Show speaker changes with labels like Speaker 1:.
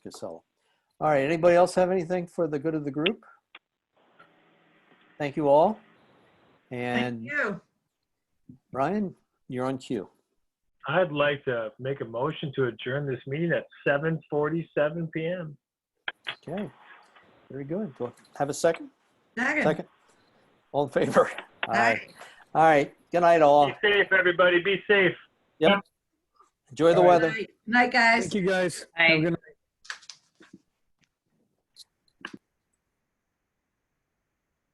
Speaker 1: Casella. All right, anybody else have anything for the good of the group? Thank you all.
Speaker 2: Thank
Speaker 1: And
Speaker 2: you.
Speaker 1: Brian, you're on cue.
Speaker 3: I'd like to make a motion to adjourn this meeting at 7:47 PM.
Speaker 1: Okay, very good. Do I Have a second?
Speaker 2: Second.
Speaker 1: Second? All in favor? Aye.
Speaker 2: Aye.
Speaker 1: All right, good night all.
Speaker 3: Be safe, everybody. Be safe.
Speaker 1: Enjoy the
Speaker 3: All right.
Speaker 1: weather.
Speaker 2: Night, Night, guys.
Speaker 4: Thank you, guys.
Speaker 5: Bye.
Speaker 4: Have a good night.